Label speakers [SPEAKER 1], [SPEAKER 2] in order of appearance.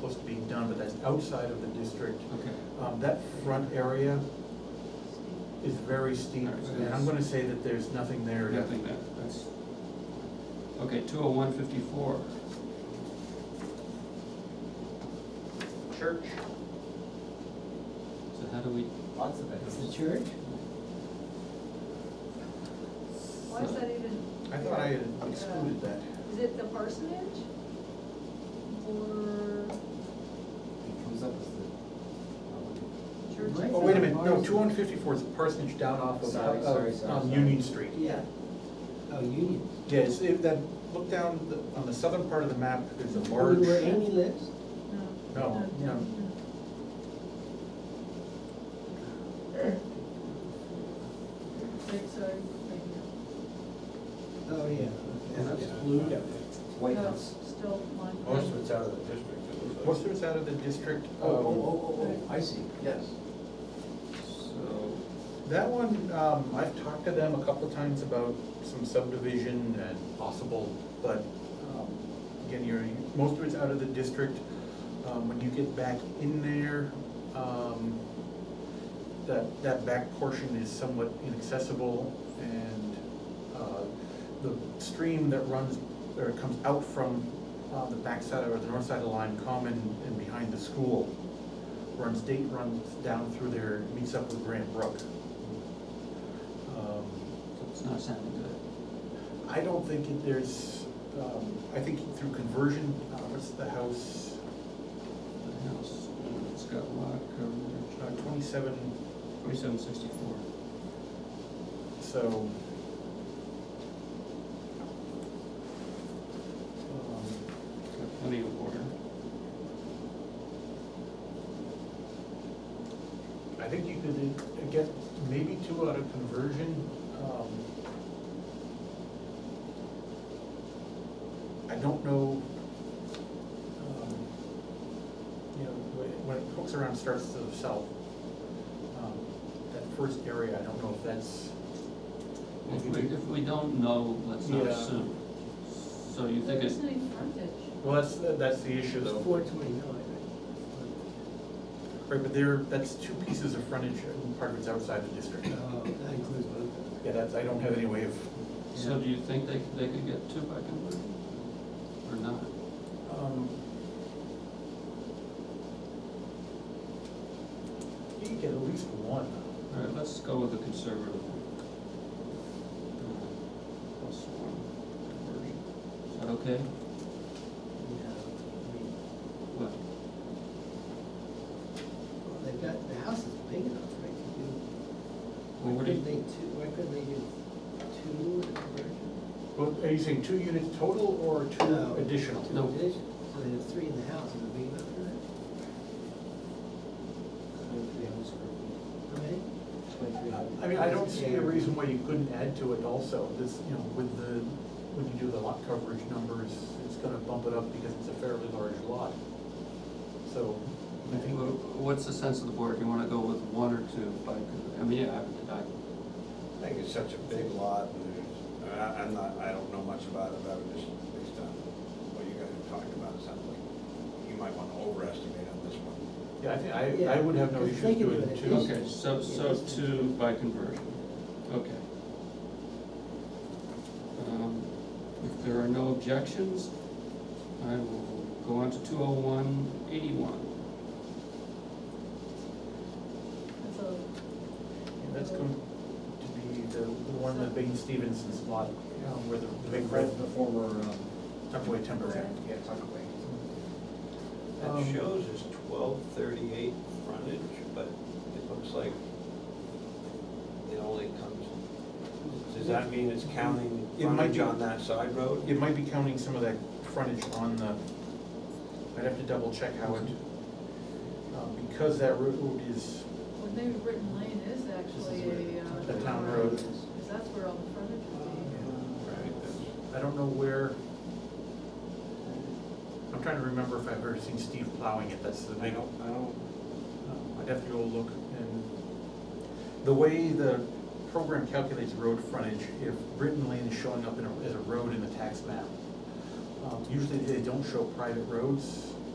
[SPEAKER 1] close to being done, but that's outside of the district.
[SPEAKER 2] Okay.
[SPEAKER 1] Um, that front area is very steep,
[SPEAKER 2] Alright, so
[SPEAKER 1] and I'm
[SPEAKER 2] it's-
[SPEAKER 1] gonna say that there's nothing there. to-
[SPEAKER 2] Nothing that, that's, okay, two oh one fifty-four,
[SPEAKER 3] Church,
[SPEAKER 2] so how do we,
[SPEAKER 3] lots of it.
[SPEAKER 4] It's the church?
[SPEAKER 5] Why is that even?
[SPEAKER 1] I thought I had
[SPEAKER 5] there?
[SPEAKER 1] excluded that.
[SPEAKER 5] Is it the parsonage? Or
[SPEAKER 3] It comes up as um, the.
[SPEAKER 5] church?
[SPEAKER 4] Right.
[SPEAKER 1] Oh, wait a minute, no, two hundred fifty-fourth parsonage down off of,
[SPEAKER 3] Sorry, sorry,
[SPEAKER 1] of,
[SPEAKER 3] sorry,
[SPEAKER 1] um,
[SPEAKER 3] sorry.
[SPEAKER 1] Union Street.
[SPEAKER 4] Yeah. Oh, Union.
[SPEAKER 1] Yes, if that, look down the- on the southern part of the map, there's a large,
[SPEAKER 4] Where Amy lives?
[SPEAKER 1] No, no.
[SPEAKER 5] Right, sorry, right
[SPEAKER 4] Oh, yeah.
[SPEAKER 3] And that's
[SPEAKER 4] blue.
[SPEAKER 3] White
[SPEAKER 5] now. No,
[SPEAKER 3] House.
[SPEAKER 5] Still mine.
[SPEAKER 1] Oh,
[SPEAKER 6] Most of it's out of the district. it looks like.
[SPEAKER 1] most of it's out of the district.
[SPEAKER 3] Oh, oh,
[SPEAKER 1] um,
[SPEAKER 3] oh, oh, I see.
[SPEAKER 6] Yes.
[SPEAKER 2] so,
[SPEAKER 1] That one, um, I've talked to them a couple of times about some subdivision and possible, but, um, again, you're, most of it's out of the district. Um, when you get back in there, um, that, that back portion is somewhat inaccessible and, uh, the stream that runs, or comes out from, uh, the backside or the north side of Lime Common and behind the school runs, date runs down through there, meets up with Grant Brook. Um,
[SPEAKER 2] it's not sounding good.
[SPEAKER 1] I don't think that there's, um, I think through conversion, uh, what's the house,
[SPEAKER 2] The house, uh, it's got lot
[SPEAKER 1] uh,
[SPEAKER 2] coverage,
[SPEAKER 1] twenty-seven,
[SPEAKER 2] twenty-seven sixty-four.
[SPEAKER 1] so.
[SPEAKER 2] It's got plenty of water.
[SPEAKER 1] um, I think you could get maybe two out of conversion, um. I don't know, um, you know, wh- when it hooks around, starts to the south. um, That first area, I don't know if that's.
[SPEAKER 2] If we, if we don't know, let's not
[SPEAKER 1] Yeah.
[SPEAKER 2] assume. So you think
[SPEAKER 5] There
[SPEAKER 2] it's,
[SPEAKER 5] isn't any frontage.
[SPEAKER 1] Well, that's, that's the issue
[SPEAKER 4] It's
[SPEAKER 1] though.
[SPEAKER 4] four twenty-nine.
[SPEAKER 1] Right, but there, that's two pieces of frontage and part of it's outside the district.
[SPEAKER 4] Oh, that includes both.
[SPEAKER 1] Yeah, that's, I don't have any way of,
[SPEAKER 2] so do you think they, they could get two by conversion? Or not?
[SPEAKER 1] um. You can get at least one.
[SPEAKER 2] All right, let's go with the conservative one. Plus one conversion. Is that okay?
[SPEAKER 4] No,
[SPEAKER 2] What?
[SPEAKER 4] I mean, well, They've got, the house is big enough, right, to do.
[SPEAKER 2] Well,
[SPEAKER 4] Why
[SPEAKER 2] what do you,
[SPEAKER 4] couldn't they two, why couldn't they do two in a conversion?
[SPEAKER 1] Well, are you saying two units total or
[SPEAKER 4] No.
[SPEAKER 1] two additional?
[SPEAKER 4] Two
[SPEAKER 2] No.
[SPEAKER 4] additions, so they have three in the house, is it big enough for that?
[SPEAKER 3] Twenty-three hundred square feet.
[SPEAKER 4] I mean,
[SPEAKER 3] Twenty-three hundred.
[SPEAKER 1] I mean, I don't see a reason why you couldn't add to it also, this, you know, with the, when you do the lot coverage numbers, it's gonna bump it up because it's a fairly large lot. So, I think.
[SPEAKER 2] wha- what's the sense of the board? Do you wanna go with one or two by, con- I mean, yeah, I, I,
[SPEAKER 6] I think it's such a big lot, and there's, I, I'm not, I don't know much about it, but I would just, based on what you guys have talked about, it sounds like you might want to overestimate on this one.
[SPEAKER 1] Yeah, I think, I, I
[SPEAKER 4] Yeah,
[SPEAKER 1] would have no
[SPEAKER 4] because
[SPEAKER 1] issues
[SPEAKER 4] they can do
[SPEAKER 1] doing
[SPEAKER 4] it.
[SPEAKER 1] two.
[SPEAKER 2] okay, so, so two by conversion, okay. Um, If there are no objections, I will go on to two oh one eighty-one.
[SPEAKER 5] That's a,
[SPEAKER 1] And That's going to be the, the one that Bane Stevenson's lot, um, where the the big red
[SPEAKER 3] The former, um,
[SPEAKER 1] Tupperware Timberland.
[SPEAKER 3] yeah, Tuckaway.
[SPEAKER 6] That
[SPEAKER 1] Um,
[SPEAKER 6] shows is twelve thirty-eight frontage, but it looks like it only comes, does that mean it's counting
[SPEAKER 1] It might
[SPEAKER 6] frontage
[SPEAKER 1] be-
[SPEAKER 6] on that side road?
[SPEAKER 1] It might be counting some of that frontage on the, I'd have to double check how it, uh, because that route is
[SPEAKER 5] well, maybe Britton Lane is actually a. uh,
[SPEAKER 1] a town road.
[SPEAKER 5] Because that's where all the frontage would
[SPEAKER 6] Right, that's-
[SPEAKER 1] I don't know where, I'm trying to remember if I've ever seen Steve plowing it, that's the
[SPEAKER 6] I
[SPEAKER 1] big,
[SPEAKER 6] don't, I don't,
[SPEAKER 1] Um, I'd have to go look and, the way the program calculates road frontage, if Britton Lane is showing up in a, as a road in the tax map, um, usually they don't show private roads,